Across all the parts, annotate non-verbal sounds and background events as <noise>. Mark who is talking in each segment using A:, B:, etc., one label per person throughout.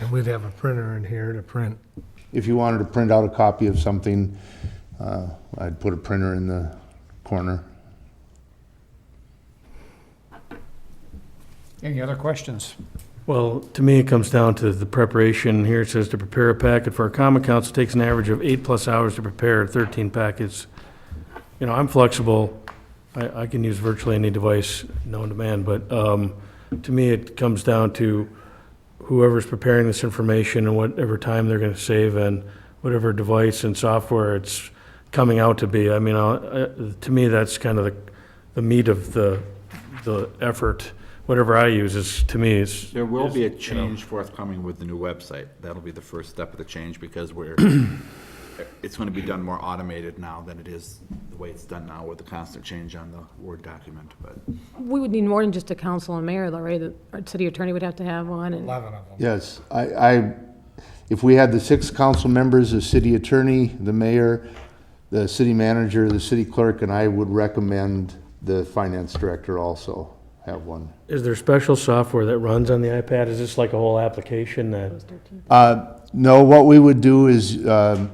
A: And we'd have a printer in here to print.
B: If you wanted to print out a copy of something, uh, I'd put a printer in the corner.
C: Any other questions?
D: Well, to me, it comes down to the preparation. Here it says to prepare a packet for a common council takes an average of eight-plus hours to prepare 13 packets. You know, I'm flexible. I, I can use virtually any device known to man, but um, to me, it comes down to whoever's preparing this information and whatever time they're going to save and whatever device and software it's coming out to be. I mean, I'll- uh, to me, that's kind of the, the meat of the, the effort. Whatever I use is, to me, is
E: There will be a
D: is, you know.
E: change forthcoming with the new website. That'll be the first step of the change because we're, <clears throat> it's gonna be done more automated now than it is the way it's done now with the constant change on the Word document, but.
F: We would need more than just a council and mayor, though, right? The- Our city attorney would have to have one, and
A: Eleven of them.
B: Yes, I, I, if we had the six council members, the city attorney, the mayor, the city manager, the city clerk, and I would recommend the finance director also have one.
D: Is there special software that runs on the iPad? Is this like a whole application that,
B: Uh, No, what we would do is, um,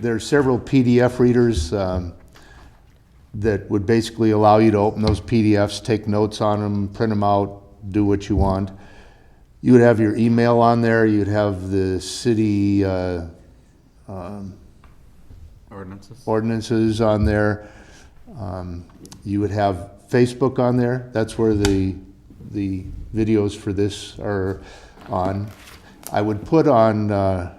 B: there are several PDF readers um, that would basically allow you to open those PDFs, take notes on them, print them out, do what you want. You would have your email on there, you'd have the city uh,
E: Ordinances?
B: ordinances on there. Um, You would have Facebook on there, that's where the, the videos for this are on. I would put on, uh,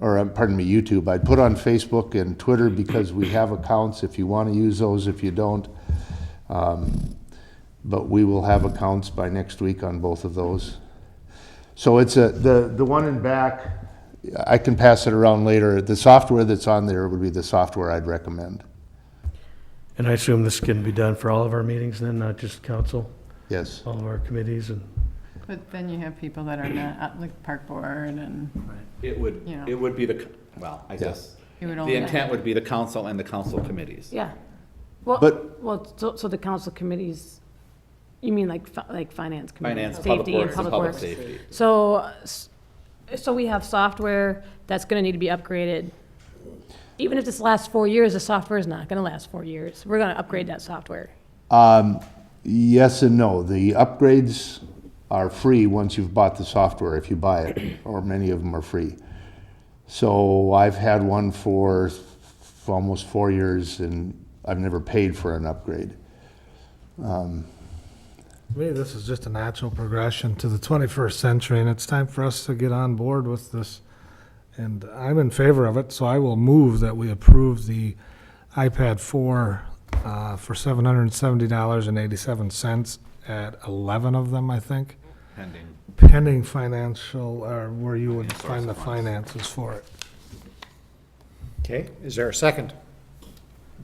B: or uh, pardon me, YouTube, I'd put on Facebook and Twitter because we have accounts if you want to use those, if you don't. Um, But we will have accounts by next week on both of those. So it's a, the, the one in back, I can pass it around later. The software that's on there would be the software I'd recommend.
D: and I assume this can be done for all of our meetings then, not just council,
B: Yes.
D: all of our committees and,
G: But then you have people that are not, uh, like park board and
E: It would,
G: Yeah.
E: it would be the, c- well, I guess,
G: you would
E: the
G: only.
E: intent would be the council and the council committees.
F: yeah. Well,
B: But-
F: well, so, so the council committees, you mean like, fi- like finance committee?
E: Finance, public
F: safety, and
E: works, and public safety.
F: So, uh, s- so we have software that's gonna need to be upgraded. Even if this lasts four years, the software is not gonna last four years. We're gonna upgrade that software.
B: Um, yes and no. The upgrades are free once you've bought the software, if you buy it, or many of them are free. So I've had one for f- almost four years and I've never paid for an upgrade.
A: To me, this is just a natural progression to the twenty-first century, and it's time for us to get on board with this. And I'm in favor of it, so I will move that we approve the iPad four, uh, for seven hundred and seventy dollars and eighty-seven cents at eleven of them, I think,
E: Pending.
A: pending financial, or where you would find the finances for it.
C: Okay, is there a second?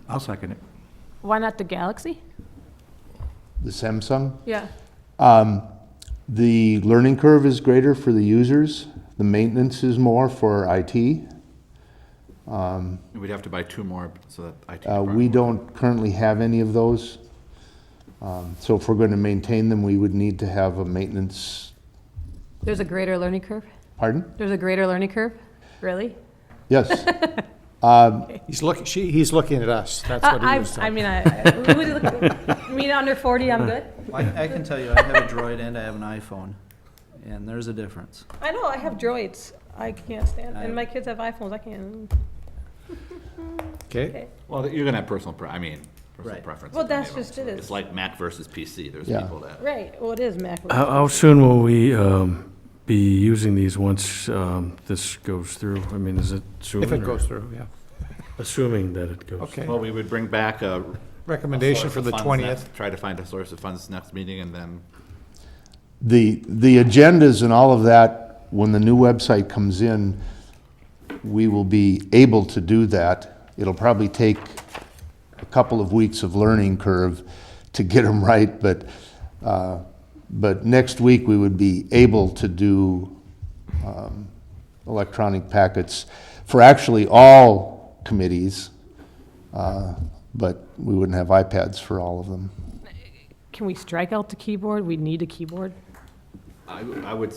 H: I'll second it.
F: Why not the Galaxy?
B: The Samsung?
F: Yeah.
B: Um, the learning curve is greater for the users. The maintenance is more for IT.
E: We'd have to buy two more, so that IT
B: Uh,
E: department.
B: We don't currently have any of those. Um, So if we're going to maintain them, we would need to have a maintenance,
F: There's a greater learning curve?
B: pardon?
F: There's a greater learning curve? Really?
B: Yes.
C: He's looking, she, he's looking at us, that's what he
F: Uh, I,
C: was
F: I, I
C: saying.
F: mean, I, I- would it look- you mean under 40, I'm good?
H: I, I can tell you, I have a Droid and I have an iPhone, and there's a difference.
F: I know, I have droids. I can't stand,
H: and
F: my kids have iPhones, I can't.
C: Okay,
E: Well, you're gonna have personal, pre- I mean, personal
H: Right.
E: preference.
F: Well, that's just it,
E: It's
F: it's-
E: like Mac versus PC. There's
B: Yeah.
E: people that.
F: Right, well, it is Mac.
C: Uh-huh.
D: how, how soon will we um, be using these once um, this goes through? I mean, is it soon?
C: if it
D: or-
C: goes through, yeah.
D: Assuming that it goes.
C: Okay.
E: Well, we would bring back a
C: Recommendation
E: source
C: for
E: of
C: the
E: funds
C: 20th.
E: next- Try to find a source of funds next meeting and then
B: The, the agendas and all of that, when the new website comes in, we will be able to do that. It'll probably take a couple of weeks of learning curve to get them <laughs> right, but, uh, but next week, we would be able to do um, electronic packets for actually all committees, uh, but we wouldn't have iPads for all of them.
F: Can we strike out the keyboard? We need a keyboard.
E: I, I would